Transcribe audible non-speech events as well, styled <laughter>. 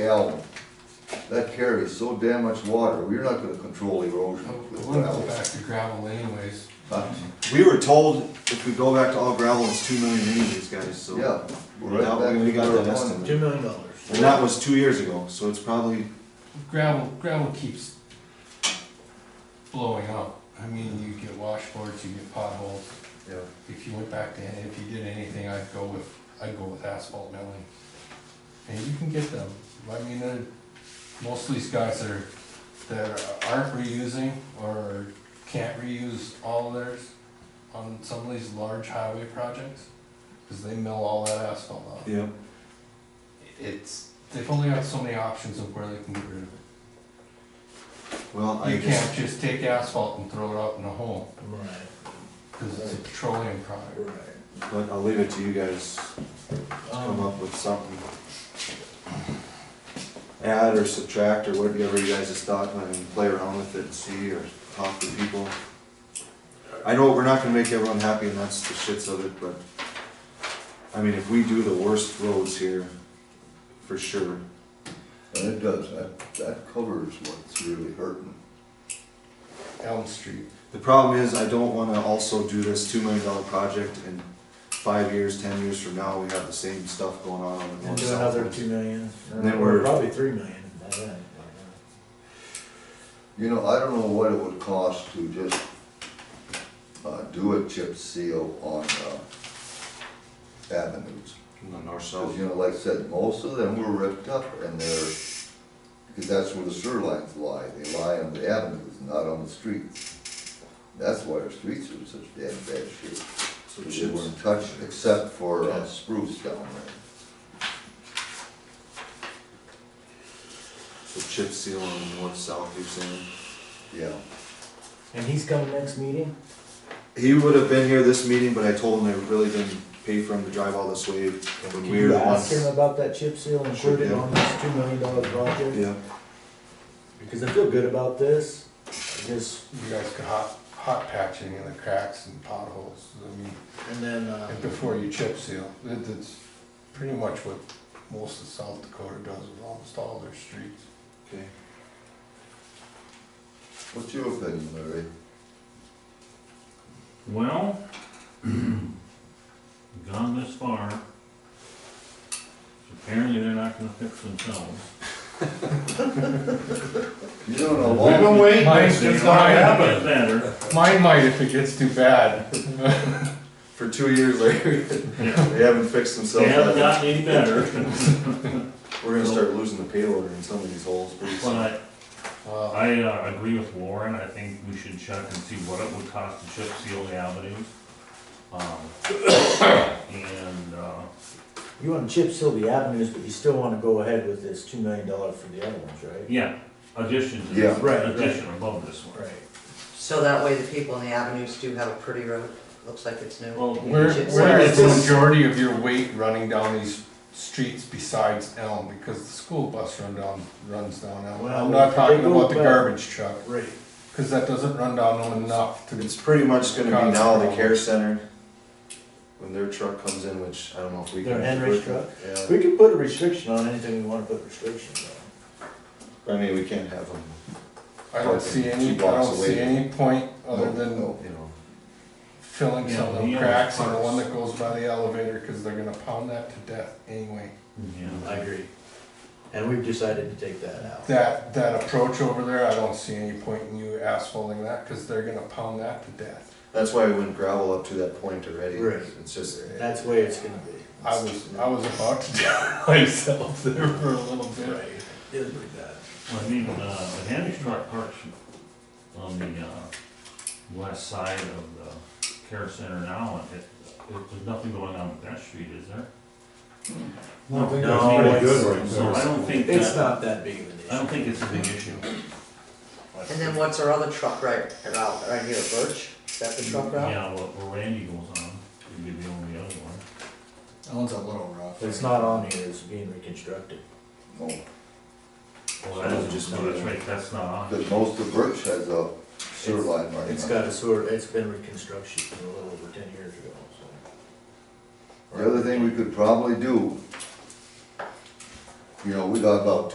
alum. That carries so damn much water, we're not gonna control erosion with We'll Oh, go gravel. back to gravel anyways. Huh? We were told if we go back to all gravel, it's two million anyways, guys, so. Yeah. we're right Now, back we already to got square that one. estimate. Two million dollars. And that was two years ago, so it's probably, Gravel, gravel keeps blowing up. I mean, you get washboards, you get potholes. Yeah. If you went back to, if you did anything, I'd go with, I'd go with asphalt milling. And you can get them, I mean, they're, most of these guys are, that aren't reusing or can't reuse all theirs on some of these large highway projects, cause they mill all that asphalt off. yeah, It's, they've only got so many options of where they can get rid of it. well, I You guess. can't just take asphalt and throw it out in a hole, Right, because it's a petroleum product. right. But I'll leave it to you guys to come Um, up with something. Add or subtract or whatever you guys just thought, I mean, play around with it and see or talk to people. I know we're not gonna make everyone happy and that's the shits of it, but, I mean, if we do the worst roads here, for sure, And it does, that, that covers what's really hurting. Elm Street. The problem is, I don't wanna also do this two million dollar project and five years, ten years from now, we have the same stuff going on. on the And north do south another roads. two million, And then or we're- probably three million by then. You know, I don't know what it would cost to just, uh, do a chip seal on, uh, avenues. On the north Cause south. you know, like I said, most of them were ripped up and they're, because that's where the sewer lines lie, they lie on the avenues, not on the streets. That's why our streets are in such damn bad shape, So they chips. weren't touched except for uh, spruce down there. So chip seal on the north south, you're saying? Yeah, And he's coming next meeting? He would have been here this meeting, but I told him I really didn't pay for him to drive all this way when Can we were the you ask him ones. about that chip seal Sure, included yeah. on this two million dollar project? Yeah, Because I feel good about this, I just, You guys could hot, hot patching in the cracks and potholes, I mean, and then, uh, and before you chip seal. That- That's pretty much what most of South Dakota does with almost all their streets. okay. what's your opinion, Larry? Well, <clears throat> gone this far. Apparently they're not gonna fix themselves. You don't know long, waiting. Mine's They just not might get happening. Better, <laughs> Mine might if it gets too bad. For two years <laughs> later, yeah, they haven't fixed they themselves. haven't yet. gotten any better, We're gonna start losing the payloader in some of these holes pretty soon. but Well, I, uh, agree with Warren, I think we should check and see what it would cost to chip seal the avenues. Um, and, uh, you wanna chip seal the avenues, but you still wanna go ahead with this two million dollar for the other ones, right? yeah, addition to Yeah, this, right, right. addition above this one. Right. So that way the people in the avenues do have a pretty road, looks like it's new. Well, where, Chip where seal. is the majority of your weight running down these streets besides Elm? Because the school bus run down, runs down Elm. Well, I'm not talking they go about the back. garbage truck. Right. Cause that doesn't run down them enough to, It's pretty much gonna be now the care center, when their truck comes in, which I don't know if we can. Their Henry's truck? Yeah, We could put a restriction on anything we wanna put restrictions on. I mean, we can't have them, I don't see any, I Two blocks don't see away. any point other than no, you know, filling some of the Yeah, cracks on the parts. one that goes by the elevator, cause they're gonna pound that to death anyway. Yeah, I agree. And we've decided to take that out. That, that approach over there, I don't see any point in you asphalting that, cause they're gonna pound that to death. that's why we went gravel up to that point already. Right. It's just, That's the way it's gonna be. I was, I was about to down <laughs> myself there for a little bit. It'll be bad. Well, I mean, uh, the Hamish truck parks on the, uh, west side of the care center now, and it, it, there's nothing going on with that street, is there? No, No, pretty it's- good right So I don't think It's that, not that big of an issue. I don't think it's a big issue. And then what's our other truck right, around, right here, Birch? Is that the truck route? Yeah, well, where Randy goes on, would be the only other one. That one's a little rough. It's not on here, it's being reconstructed. no, Well, that is just, no, that's right, that's not on. because most of Birch has a sewer line right It's now. got a sewer, it's been reconstruction a little over ten years ago, so. The other thing we could probably do, you know, we got about